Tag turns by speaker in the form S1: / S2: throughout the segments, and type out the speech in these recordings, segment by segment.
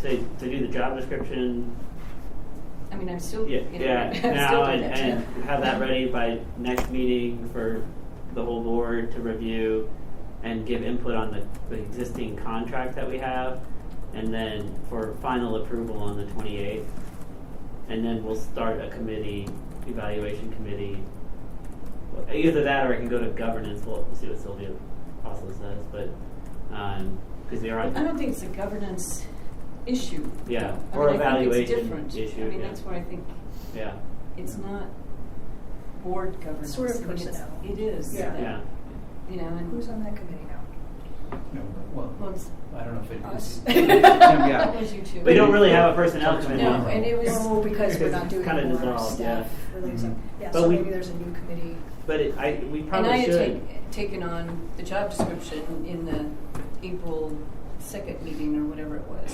S1: they, they do the job description,
S2: I mean, I'm still,
S1: yeah,
S2: you know,
S1: yeah,
S2: I'm still
S1: now
S2: doing
S1: and,
S2: that
S1: and
S2: too.
S1: have that ready by next meeting for the whole board to review and give input on the, the existing contract that we have, and then for final approval on the twenty-eighth. And then we'll start a committee, evaluation committee. Well, Either that or I can go to governance, we'll, we'll see what Sylvia also says, but, um, cause they are.
S2: I don't think it's a governance issue.
S1: Yeah,
S2: though.
S1: or
S2: I mean, I think it's
S1: evaluation
S2: different.
S1: issue,
S2: I mean,
S1: yeah.
S2: that's where I think
S1: Yeah,
S2: it's not board governance.
S3: Sort of
S2: I mean, it's-
S3: personnel.
S2: It is.
S3: Yeah.
S2: that,
S1: yeah,
S2: You know,
S3: Who's
S2: and,
S3: on that committee now?
S4: No,
S2: well,
S4: well,
S2: it's
S4: I don't know if it
S3: Us.
S4: is. Yeah,
S2: That
S4: yeah.
S2: was you two.
S1: we don't really have a personnel committee.
S2: No, and it was.
S3: No, because we're not
S1: It's
S3: doing
S1: kinda
S3: more
S1: dissolved,
S3: staff
S1: yeah. Mm-hmm.
S3: releasing.
S4: Mhm.
S3: Yeah,
S1: But
S3: so
S1: we-
S3: maybe there's a new committee.
S1: But it, I, we
S2: And I
S1: probably
S2: had
S1: should.
S2: take, taken on the job description in the April second meeting or whatever it was,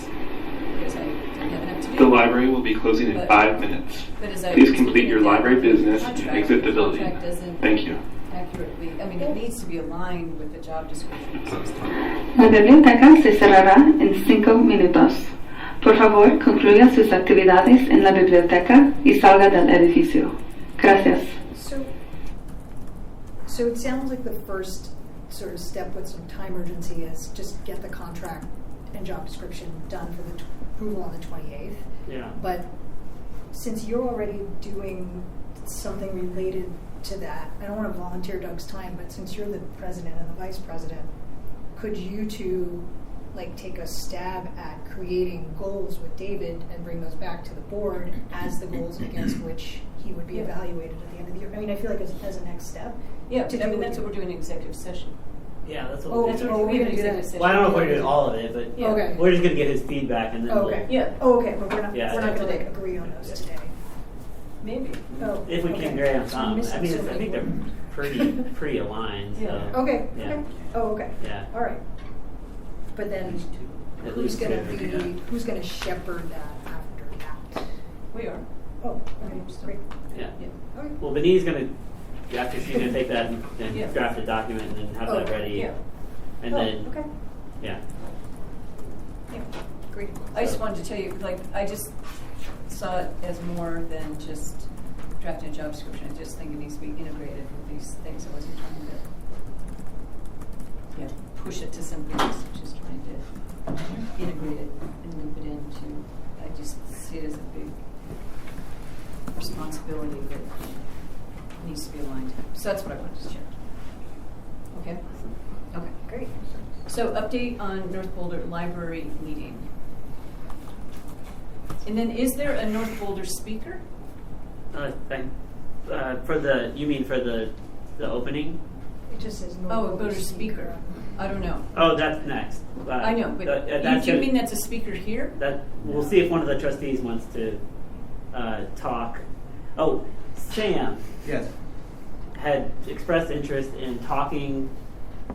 S2: because I didn't have enough to do.
S5: The library will be closing in
S2: But-
S5: five minutes.
S2: But as I
S5: Please
S2: was looking
S5: complete your
S2: at that
S5: library business and
S2: contract,
S5: exit the building.
S2: contract doesn't
S5: Thank you.
S2: Accurately, I mean, it needs to be aligned with the job description. so it's-
S6: La biblioteca se cerrará en cinco minutos. Por favor, concluya sus actividades en la biblioteca y salga del edificio. Gracias.
S3: So, so it sounds like the first sort of step with some time urgency is just get the contract and job description done for the tw- approval on the 28th.
S1: Yeah.
S3: But since you're already doing something related to that, I don't want to volunteer Doug's time, but since you're the president and the vice president, could you two like take a stab at creating goals with David and bring those back to the board as the goals against which he would be
S2: Yeah.
S3: evaluated at the end of the year? I mean, I feel like as, as a next step.
S2: Yeah,
S3: To
S2: but I mean,
S3: do what
S2: that's
S3: you-
S2: what we're doing in executive session.
S1: Yeah, that's what
S3: Oh,
S1: we're
S2: That's
S1: doing.
S3: oh,
S2: what we
S3: we're
S2: have in
S3: gonna do
S2: executive
S3: that.
S2: session.
S1: Well, I don't know if we're doing all of it, but
S2: Yeah.
S3: Okay.
S1: we're just gonna get his feedback and then
S3: Okay.
S1: we'll,
S2: Yeah,
S3: Oh, okay, but we're not,
S1: Yeah.
S3: we're not going to
S2: Today.
S3: like agree on those
S1: Yeah.
S3: today.
S2: maybe.
S3: Oh,
S1: if we
S3: okay.
S1: can grab
S3: So we're
S1: some. I
S3: missing
S1: mean,
S3: so
S1: it's, I
S3: many
S1: think they're
S3: words.
S1: pretty pretty aligned. So
S2: Yeah.
S3: Okay,
S1: Yeah.
S3: okay. Oh, okay.
S1: Yeah.
S3: All right. But then
S1: At
S3: who's
S1: least
S3: gonna
S1: two,
S3: be,
S1: yeah.
S3: who's gonna shepherd that after that?
S2: We are.
S3: Oh, okay, great.
S1: Yeah.
S2: Yeah.
S3: Okay.
S1: Well, Benny's gonna after she's gonna take that and, and
S2: Yeah.
S1: draft a document and then have that
S3: Oh,
S1: ready.
S2: Yeah.
S1: And
S3: Oh,
S1: then
S3: Okay,
S1: yeah.
S2: Yeah.
S3: great.
S2: I just wanted to tell you, like, I just saw it as more than just drafting a job description. I just think it needs to be integrated with these things. I wasn't trying to, yeah, push it to something else. I'm Just trying to integrate it and loop it into, I just see it as a big responsibility that needs to be aligned. So that's what I wanted to share. Okay? Okay.
S3: Great.
S2: So update on North Boulder Library meeting. And then is there a North Boulder speaker?
S1: Uh, thank, uh, for the you mean for the the opening?
S3: It just says no.
S2: Oh, a voter speaker. I don't know.
S1: Oh, that's next. Uh,
S2: I know,
S1: uh,
S2: but
S1: uh,
S2: you-
S1: that's
S2: do you
S1: gonna-
S2: mean that's a speaker here?
S1: That we'll see if one of the trustees wants to uh, talk. Oh, Sam
S4: Yes,
S1: had expressed interest in talking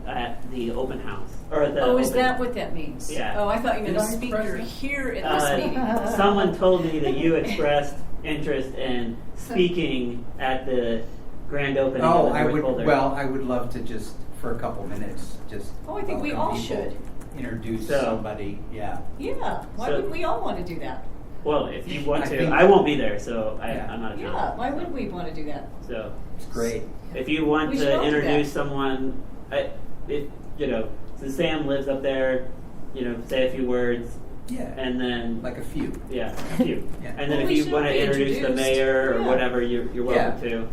S1: at the open house or at the.
S2: Oh, is
S1: open-
S2: that what that means?
S1: Yeah.
S2: Oh, I thought you meant a
S4: Did I
S2: speaker
S4: express it?
S2: here at this meeting.
S1: Uh, someone told me that you expressed interest in speaking at the grand opening. of
S4: Oh,
S1: the
S4: I
S1: North
S4: would,
S1: Boulder.
S4: well, I would love to just, for a couple minutes, just.
S2: Oh, I think we
S4: welcome
S2: all
S4: people,
S2: should.
S4: Introduce
S1: So-
S4: somebody, yeah.
S2: Yeah, why
S1: So-
S2: wouldn't we all want to do that?
S1: Well, if you want
S4: I
S1: to,
S4: think-
S1: I won't be there, so I,
S4: Yeah.
S1: I'm not.
S2: Yeah,
S1: available.
S2: why would we want to do that?
S1: So.
S4: It's great.
S1: If you want
S2: We should all
S1: to
S2: do
S1: introduce
S2: that.
S1: someone, I, if you know, since Sam lives up there, you know, say a few words,
S4: Yeah,
S1: and then
S4: like a few.
S1: yeah, you.
S4: Yeah.
S1: And
S2: Well,
S1: then
S2: we
S1: if
S2: should
S1: you want to
S2: be
S1: introduce the
S2: introduced.
S1: mayor or
S2: Yeah.
S1: whatever, you're, you're welcome
S4: Yeah.
S1: to.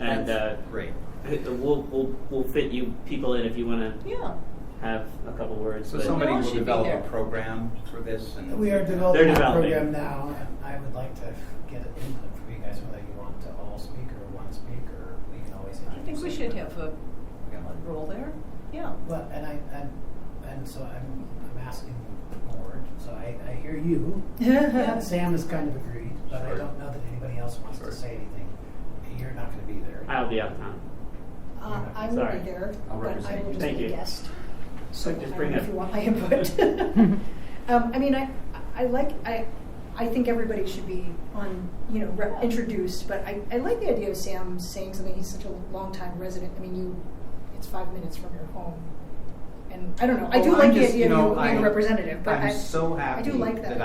S1: And uh,
S4: That's Great.
S1: we'll, we'll we'll fit you people in if you want to
S2: Yeah,
S1: have a couple words.
S4: So
S1: but-
S4: somebody
S2: all should
S4: will
S2: be there.
S4: develop a program for this and.
S7: We are
S1: They're
S7: developing a
S1: developing.
S7: program now, and I would like to get input from you guys, whether you want to all speak or one speak, or we can always.
S2: I think we
S7: introduce
S2: should
S7: it.
S2: have a a role there. Yeah.
S7: Well, and I, and, and so I'm, I'm asking the board, so I, I hear you. Sam has kind of agreed, but I
S4: Sure.
S7: don't know that anybody else wants
S4: Sure.
S7: to say anything. You're not gonna be there.
S1: I'll be out of town.
S3: Uh, I will
S1: Sorry.
S3: be there,
S4: I'll
S3: but I
S4: represent you.
S3: will just
S1: Thank
S3: be a
S1: you.
S3: guest. So
S1: Just
S3: I
S1: bring
S3: don't know
S1: it.
S3: if you want my input. um, I mean, I, I like, I, I think everybody should be on, you know, re- introduced. But I, I like the idea of Sam saying something. He's such a longtime resident. I mean, you, it's five minutes from your home, and I don't know. I do
S4: Oh, I'm
S3: like the
S4: just-
S3: idea
S4: you know,
S3: of you being
S4: I-
S3: a representative, but
S4: I'm
S3: I,
S4: so happy
S3: I do like that.